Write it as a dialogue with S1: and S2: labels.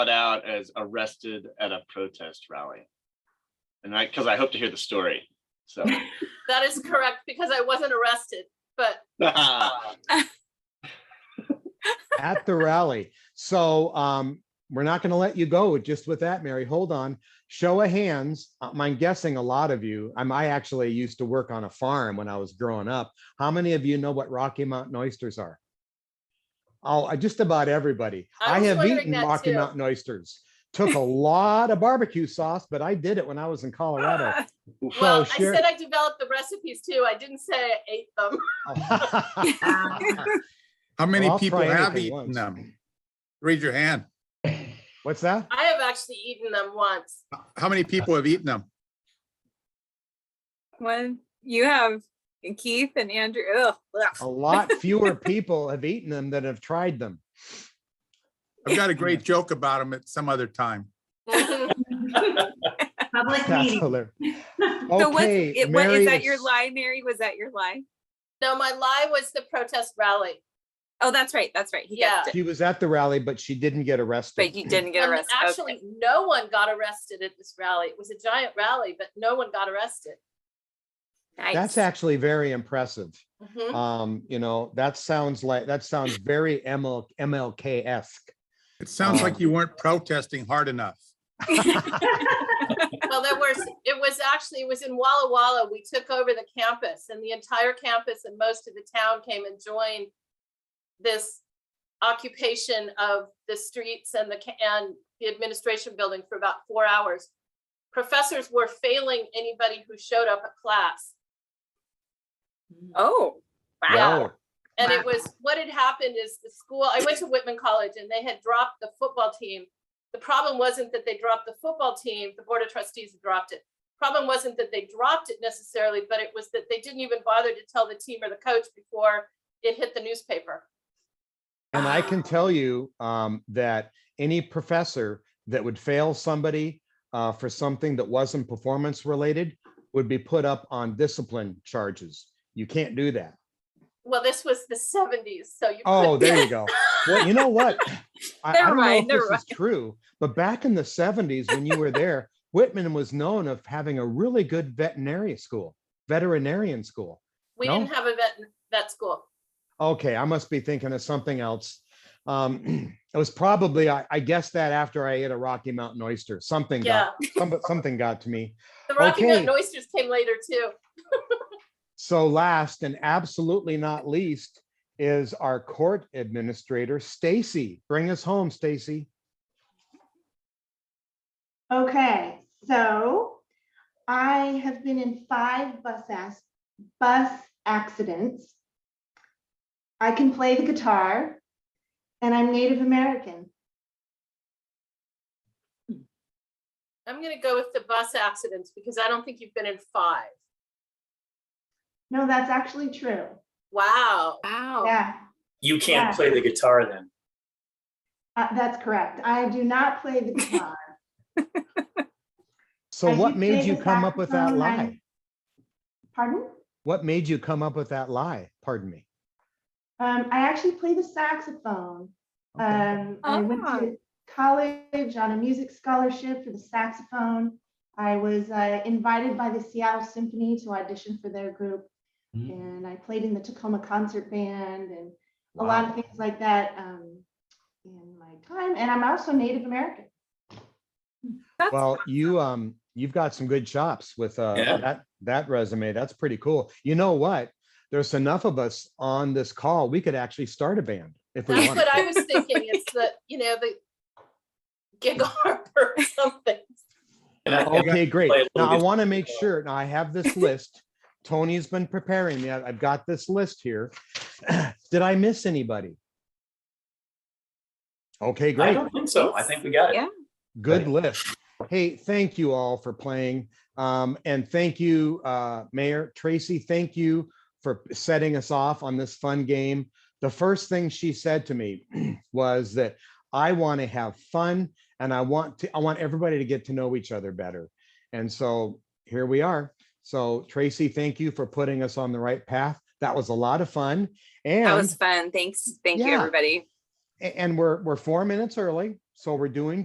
S1: out as arrested at a protest rally. And I, because I hope to hear the story, so.
S2: That is correct, because I wasn't arrested, but
S3: at the rally. So um, we're not going to let you go just with that, Mary. Hold on. Show of hands. um, I'm guessing a lot of you. Um, I actually used to work on a farm when I was growing up. How many of you know what Rocky Mountain oysters are? Oh, I- just about everybody.
S2: I
S3: I
S2: was
S3: have
S2: wondering
S3: eaten
S2: that
S3: Rocky
S2: too.
S3: Mountain oysters. Took a lot of barbecue sauce, but I did it when I was in Colorado.
S2: well,
S3: So
S2: I
S3: share-
S2: said I developed the recipes too. I didn't say I ate them.
S4: How many
S3: I'll
S4: people
S3: try
S4: have
S3: anything
S4: eaten
S3: once.
S4: them? Raise your hand.
S3: What's that?
S2: I have actually eaten them once.
S4: How many people have eaten them?
S5: One, you have Keith and Andrew. Ugh, ugh.
S3: A lot fewer people have eaten them than have tried them.
S4: I've got a great joke about them at some other time.
S6: Public
S3: That's
S6: meeting.
S3: hilarious.
S5: So what's,
S3: Okay,
S5: it, what,
S3: Mary
S5: is that your
S3: is-
S5: lie, Mary? Was that your lie?
S2: No, my lie was the protest rally.
S5: Oh, that's right, that's right. He
S2: Yeah.
S5: guessed it,
S3: She was at the rally, but she didn't get
S5: but
S3: arrested.
S5: you didn't get
S2: And
S5: arrested.
S2: Um, Actually,
S5: Okay.
S2: no one got arrested at this rally. It was a giant rally, but no one got arrested.
S3: That's
S5: Nice.
S3: actually very impressive.
S5: Mm-hmm.
S2: Mhm.
S3: Um, you know, that sounds like, that sounds very ML, MLK-esque.
S4: It sounds
S3: Oh.
S4: like you weren't protesting hard enough.
S2: Well, there was, it was actually, it was in Walla Walla. We took over the campus and the entire campus and most of the town came and joined this occupation of the streets and the, ca- and the administration building for about four hours. Professors were failing anybody who showed up at class.
S5: Oh, wow.
S3: Wow.
S2: And it was, what had happened is the school, I went to Whitman College and they had dropped the football team. The problem wasn't that they dropped the football team, the board of trustees had dropped it. Problem wasn't that they dropped it necessarily, but it was that they didn't even bother to tell the team or the coach before it hit the newspaper.
S3: And I can tell you, um, that any professor that would fail somebody, uh, for something that wasn't performance related would be put up on discipline charges. You can't do that.
S2: Well, this was the seventies, so you.
S3: Oh,
S2: couldn't-
S3: there you go. Well, you know what? I, I
S5: Never
S3: don't know
S5: mind,
S3: if
S5: never
S3: this is true, but back in the seventies, when you were there, Whitman was known of having a really good veterinary school, veterinarian school.
S2: We
S3: no.
S2: didn't have a vet, vet school.
S3: Okay, I must be thinking of something else. Um, it was probably, I, I guessed that after I ate a Rocky Mountain oyster, something
S2: Yeah,
S3: got, some- something got to me.
S2: the Rocky Mountain
S3: Okay.
S2: oysters came later too.
S3: So last and absolutely not least is our court administrator, Stacy. Bring us home, Stacy.
S6: Okay, so I have been in five bus ass, bus accidents. I can play the guitar and I'm Native American.
S2: I'm gonna go with the bus accidents because I don't think you've been in five.
S6: No, that's actually true.
S2: Wow.
S5: Wow.
S6: Yeah,
S7: You can't
S6: Yeah.
S7: play the guitar then.
S6: uh, that's correct. I do not play the guitar.
S3: So
S6: I
S3: what
S6: do
S3: made
S6: play
S3: you
S6: the
S3: come up with that
S6: saxophone, I-
S3: lie?
S6: Pardon?
S3: What made you come up with that lie? Pardon me.
S6: Um, I actually play the saxophone.
S3: Okay.
S6: Um, I went to college on a music scholarship for the saxophone. I was uh, invited by the Seattle Symphony to audition for their group,
S7: Mm.
S6: and I played in the Tacoma Concert Band and a lot of
S3: Wow.
S6: things like that um, in my time. And I'm also Native American.
S5: That's
S3: Well, you, um, you've got some good chops with, uh,
S7: Yeah.
S3: that, that resume. That's pretty cool. You know what? There's enough of us on this call. We could actually start a band if we
S2: That's
S3: wanted.
S2: what I was thinking. It's the, you know, the gig harbor or something.
S7: And I-
S3: Okay, great.
S7: play a little
S3: Now I
S7: bit- uh,
S3: want to make sure, now I have this list. Tony's been preparing me. I- I've got this list here. Did I miss anybody? Okay,
S7: I
S3: great.
S7: don't think so. I think we got
S5: Yeah.
S7: it.
S3: Good
S7: Right.
S3: list. Hey, thank you all for playing. Um, and thank you, uh, Mayor Tracy, thank you for setting us off on this fun game. The first thing she said to me was that I want to have fun and I want to, I want everybody to get to know each other better. And so here we are. So Tracy, thank you for putting us on the right path. That was a lot of fun.
S5: That
S3: And,
S5: was fun. Thanks. Thank you,
S3: Yeah.
S5: everybody.
S3: and we're, we're four minutes early, so we're doing